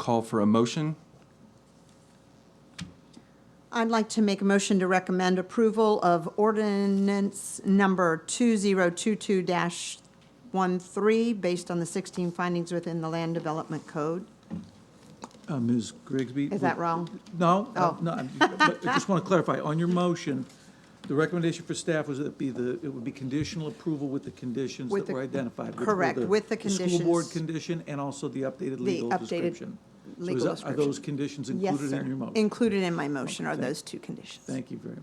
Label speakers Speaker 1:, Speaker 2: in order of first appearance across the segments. Speaker 1: call for a motion.
Speaker 2: I'd like to make a motion to recommend approval of ordinance number 2022-13 based on the 16 findings within the Land Development Code.
Speaker 3: Uh, Ms. Grigsby?
Speaker 2: Is that wrong?
Speaker 3: No, uh,
Speaker 2: Oh.
Speaker 3: no, I'm- but I just want to clarify, on your motion, the recommendation for staff was that it be the, it would be conditional approval with the conditions
Speaker 2: With
Speaker 3: that were
Speaker 2: the-
Speaker 3: identified. which were
Speaker 2: correct, with the
Speaker 3: School board
Speaker 2: conditions.
Speaker 3: condition and also the updated legal
Speaker 2: updated
Speaker 3: description. So is
Speaker 2: legal
Speaker 3: that- Are those
Speaker 2: description.
Speaker 3: conditions
Speaker 2: Yes,
Speaker 3: included
Speaker 2: sir.
Speaker 3: in your motion?
Speaker 2: Included in my motion are
Speaker 3: Okay, thank-
Speaker 2: those two conditions.
Speaker 3: Thank you very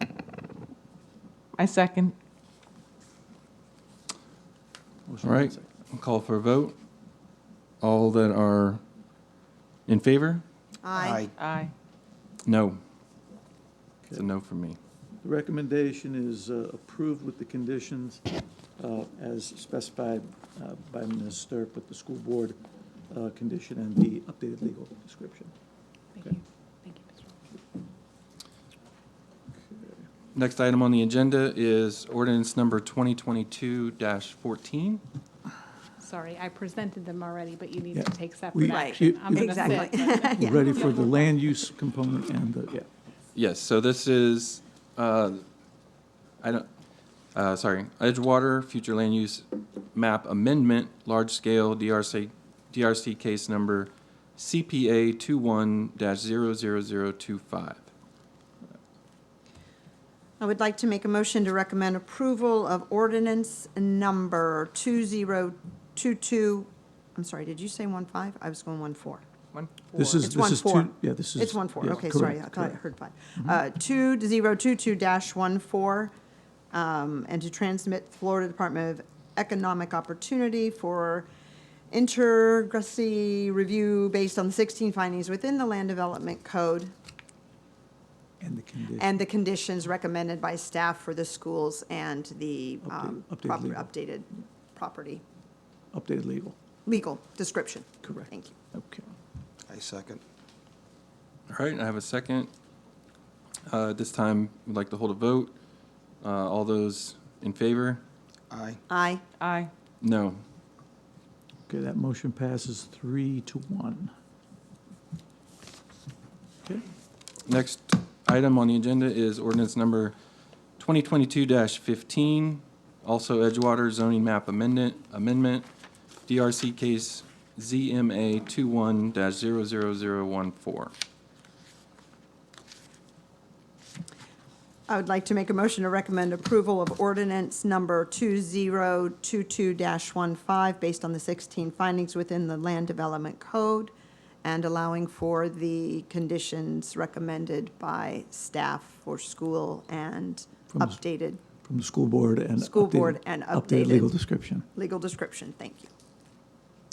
Speaker 3: much.
Speaker 4: I second.
Speaker 3: Motion
Speaker 1: All
Speaker 3: and
Speaker 1: right,
Speaker 3: second.
Speaker 1: I'll call for a vote. All that are in favor?
Speaker 2: Aye.
Speaker 4: Aye.
Speaker 1: No. It's a no for me.
Speaker 3: The recommendation is uh, approved with the conditions uh, as specified uh, by Ms. Sterp with the school board uh, condition and the updated legal description.
Speaker 5: Thank you. Thank you, Ms. Roll.
Speaker 1: Next item on the agenda is ordinance number 2022-14.
Speaker 5: Sorry, I presented them already, but you need to
Speaker 3: Yeah.
Speaker 5: take
Speaker 3: We-
Speaker 5: separate
Speaker 2: Right.
Speaker 5: action. I'm gonna sit,
Speaker 2: Exactly.
Speaker 5: but-
Speaker 3: We're ready for the land use component and the, yeah.
Speaker 1: Yes, so this is, uh, I don't, uh, sorry, Edgewater Future Land Use Map Amendment, Large Scale DRC, DRC Case Number CPA 21-00025.
Speaker 2: I would like to make a motion to recommend approval of ordinance number 2022, I'm sorry, did you say 15? I was going 14.
Speaker 1: One.
Speaker 3: This is,
Speaker 2: It's
Speaker 3: this is two,
Speaker 2: 1-4.
Speaker 3: yeah, this is.
Speaker 2: It's one four,
Speaker 3: yeah,
Speaker 2: okay, sorry, I
Speaker 3: correct,
Speaker 2: thought I
Speaker 3: correct. Mm-hmm.
Speaker 2: heard five. Uh, two zero two two dash one four, um, and to transmit Florida Department of Economic Opportunity for intergrassy review based on the sixteen findings within the land development code
Speaker 3: And the condition.
Speaker 2: and the conditions recommended by staff for the schools and the, um,
Speaker 3: Update- updated
Speaker 2: proper,
Speaker 3: legal.
Speaker 2: updated property,
Speaker 3: updated legal,
Speaker 2: legal description.
Speaker 3: Correct.
Speaker 2: Thank you.
Speaker 3: okay.
Speaker 6: I second.
Speaker 1: All right, I have a second. Uh, At this time, we'd like to hold a vote. Uh, All those in favor?
Speaker 6: Aye.
Speaker 2: Aye.
Speaker 4: Aye.
Speaker 1: No.
Speaker 3: Okay, that motion passes three to one. Okay,
Speaker 1: Next item on the agenda is ordinance number 2022-15, also Edgewater zoning map amendment, amendment, DRC case ZMA 21-00014.
Speaker 2: I would like to make a motion to recommend approval of ordinance number 2022-15 based on the 16 findings within the Land Development Code and allowing for the conditions recommended by staff for school and
Speaker 3: From the s-
Speaker 2: updated
Speaker 3: From the school board and.
Speaker 2: School board
Speaker 3: updated-
Speaker 2: and
Speaker 3: Updated
Speaker 2: updated.
Speaker 3: legal description.
Speaker 2: legal description. Thank you.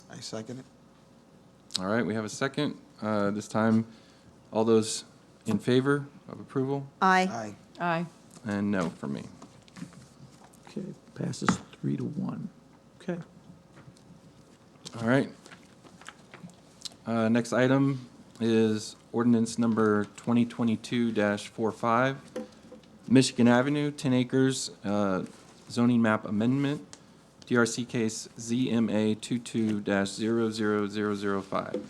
Speaker 6: I second it.
Speaker 1: All right, we have a second. Uh, This time, all those in favor of approval
Speaker 2: Aye.
Speaker 6: Aye.
Speaker 4: Aye.
Speaker 1: and no for me.
Speaker 3: Okay, passes three to one. Okay,
Speaker 1: All right. Uh, Next item is ordinance number 2022-45, Michigan Avenue, 10 acres, uh, zoning map amendment, DRC case ZMA 22-00005.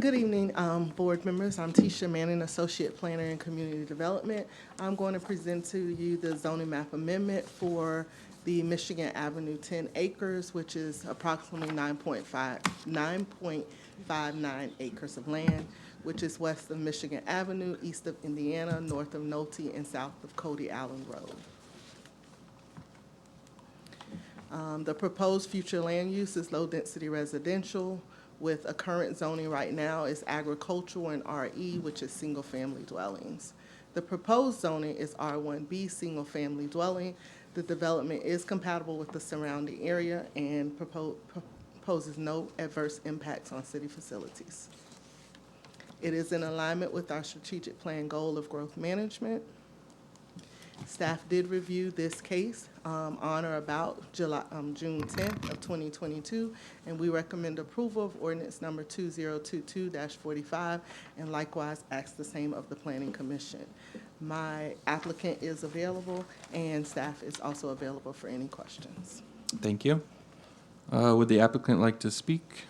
Speaker 7: Good evening, um, board members. I'm Tisha Manning, Associate Planner in Community Development. I'm going to present to you the zoning map amendment for the Michigan Avenue ten acres, which is approximately 9.5 9.59 acres of land, which is west of Michigan Avenue, east of Indiana, north of Nolte, and south of Cody Allen Road. Um, The proposed future land use is low-density residential with a current zoning right now is agricultural and RE, which is single-family dwellings. The proposed zoning is R1B, single-family dwelling. The development is compatible with the surrounding area and propo- proposes no adverse impacts on city facilities. It is in alignment with our strategic plan goal of growth management. Staff did review this case um, on or about July, um, June 10th of 2022, and we recommend approval of ordinance number 2022-45, and likewise ask the same of the Planning Commission. My applicant is available, and staff is also available for any questions.
Speaker 1: Thank you. Uh, Would the applicant like to speak?